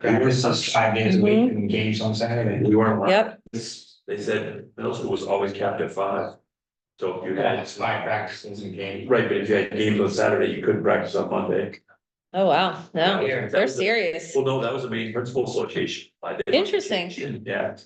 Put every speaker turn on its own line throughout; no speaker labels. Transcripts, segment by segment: There was such five days a week
Mm-hmm.
engaged on Saturday.
We weren't. allowed-
Yep.
This- They said middle school was always capped at five. So if you
Yeah,
had,
it's five practices and games.
right, but if you had games on Saturday, you couldn't practice on Monday.
Oh, wow, no,
Yeah, that
they're
was the-
serious.
Well, no, that was the main principal association. I did-
Interesting.
Yeah,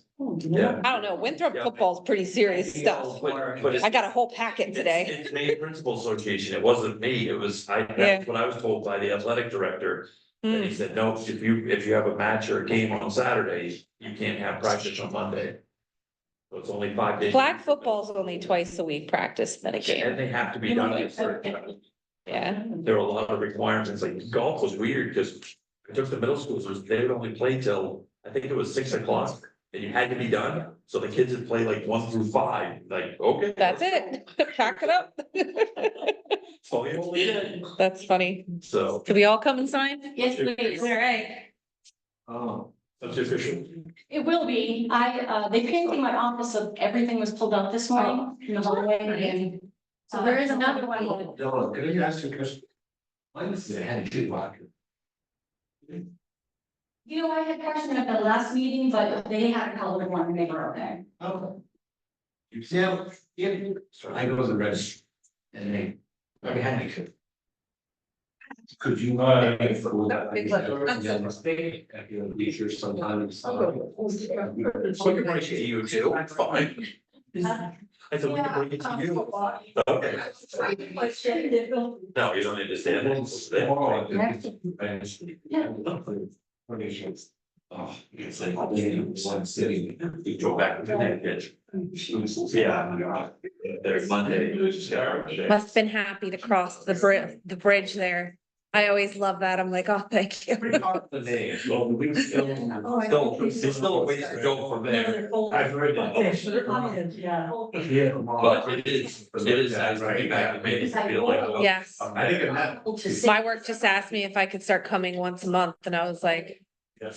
yeah.
I don't know, Winthrop
Yeah.
football's pretty serious stuff.
But- but it's-
I got a whole packet today.
It's it's main principal association. It wasn't me. It was, I,
Yeah.
that's what I was told by the athletic director. And
Mm,
he said, no, if you, if you have a match or a game on Saturday, you can't have practice on Monday. So it's only five days.
Flag football's only twice a week practice than a game,
And they have to be done. for-
yeah.
There were a lot of requirements, like golf was weird, because I took the middle schools, was they would only play till, I think it was six o'clock. And you had to be done, so the kids would play like one through five, like, okay.
That's it, pack it up.
So you only did,
That's funny.
so.
Could we all come and sign?
Yes, please.
All right.
um,
Oh. That's official.
It will be. I, uh, they painted my office, so everything was pulled out this morning in the hallway and. So there is another one.
Dylan, could I ask you a question? Why was it had a two locker?
You know, I had questioned at the last meeting, but they had a colored one and they were okay.
Oh. You see, how- yeah, so I go to the register. And they, I mean, had to. Could you?
Uh,
At your leisure sometimes. uh, So you
bring it to you too, fine.
Uh,
I said, we can bring it to
um,
you. Okay, no, you don't understand.
Oh, it's like, I'm in one city.
You go back to that pitch. Yeah. There's Monday.
Must have been happy to cross the bri- the bridge there. I always love that. I'm like, oh, thank you.
Still, there's still a ways to go from there.
I've heard
Yeah.
Yeah.
But it is, it is, I bring back, it made me feel like. well,
Yes.
I think it happened.
My work just asked me if I could start coming once a month and I was like,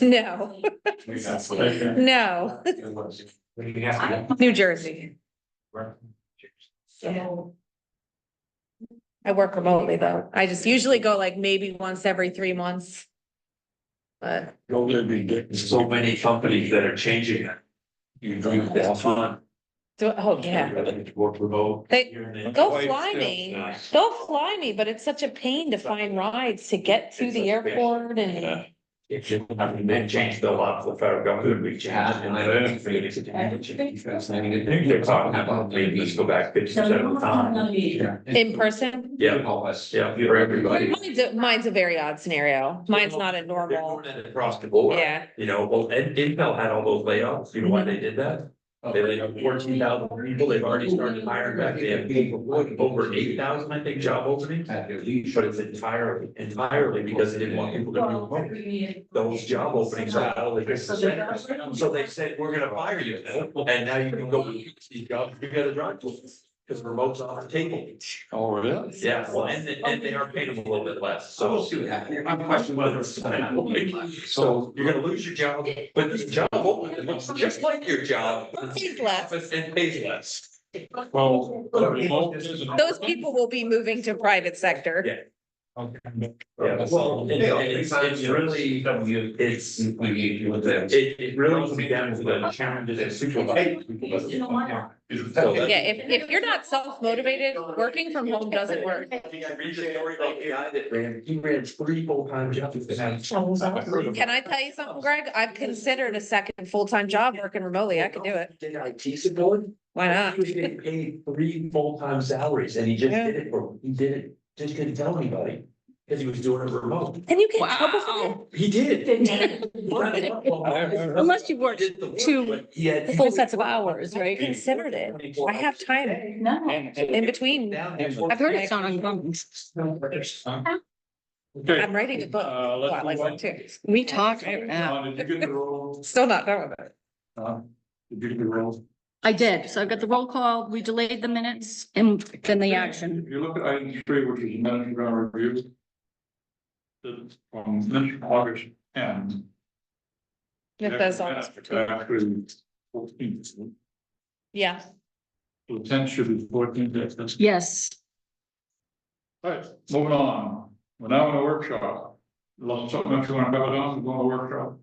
no, no, New Jersey.
So.
I work remotely though. I just usually go like maybe once every three months. But
You're gonna be getting so many companies that are changing it. You drink that fun.
do, oh, yeah,
Work remote.
They-
You're in it.
go fly me. They'll fly me, but it's such a pain to find rides to get to the airport and
It's, I mean, they changed a lot of the federal government, we changed. and I don't think it's- I think they're talking about maybe let's go back fifty percent of the time.
in person.
Yeah, yeah, for everybody.
Mine's, a- mine's a very odd scenario. Mine's not a
They're
normal,
doing it Across the board.
yeah.
You know, well, and Intel had all those layoffs, you know
Mhm.
why they did that?
Oh,
They laid off fourteen thousand people, they've already started hiring back, they have over eight thousand, I think, job openings.
At your leisure.
But it's entirely, entirely because they didn't want people to be
Oh,
remote. Those job openings are out of the. So they said, we're gonna fire you, and now you can go, these jobs, you gotta drive to, because remote's off the table.
Oh, really?
Yeah, well, and, and they are paying them a little bit less,
So we'll
so.
see what happens. My question was.
So you're gonna lose your job, but the job opening looks just like your job.
Pays less.
And pays less.
Well, the remote is-
Those people will be moving to private sector.
Yeah, well, and- and it's, it's really, it's, it, it really comes down to the challenges and supervisors.
Yeah, if, if you're not self-motivated, working from home doesn't work.
I think I read the story about the guy that ran, he ran three full-time jobs.
Oh, Can I tell you something, Greg? I've considered a second full-time job working remotely. I could do it.
Did IT support?
Why not?
He was getting paid three full-time salaries and he just
Yeah.
did it for, he did it, just didn't tell anybody, because he was doing it remote.
And you get in trouble for that?
He did. Unless
Unless you worked two Full sets of hours, right? Considered it. I have time
No.
in between.
I've heard it's on uncommon.
Okay,
I'm writing a book.
uh,
Well, I
let's
like
move
that
on.
too.
We talked, uh,
Uh, Did you get the roll?
Still not done with it.
Uh, Did you get the roll?
I did. So I've got the roll call. We delayed the minutes and then the action.
If you look at item three, which is management ground review. the- From then August and.
It does always for two.
Actually, fourteen,
Yeah.
so ten should be fourteen, that's, that's
Yes.
All right, moving on, we're now in a workshop.
Lots of, much you want to cover those, go to workshop.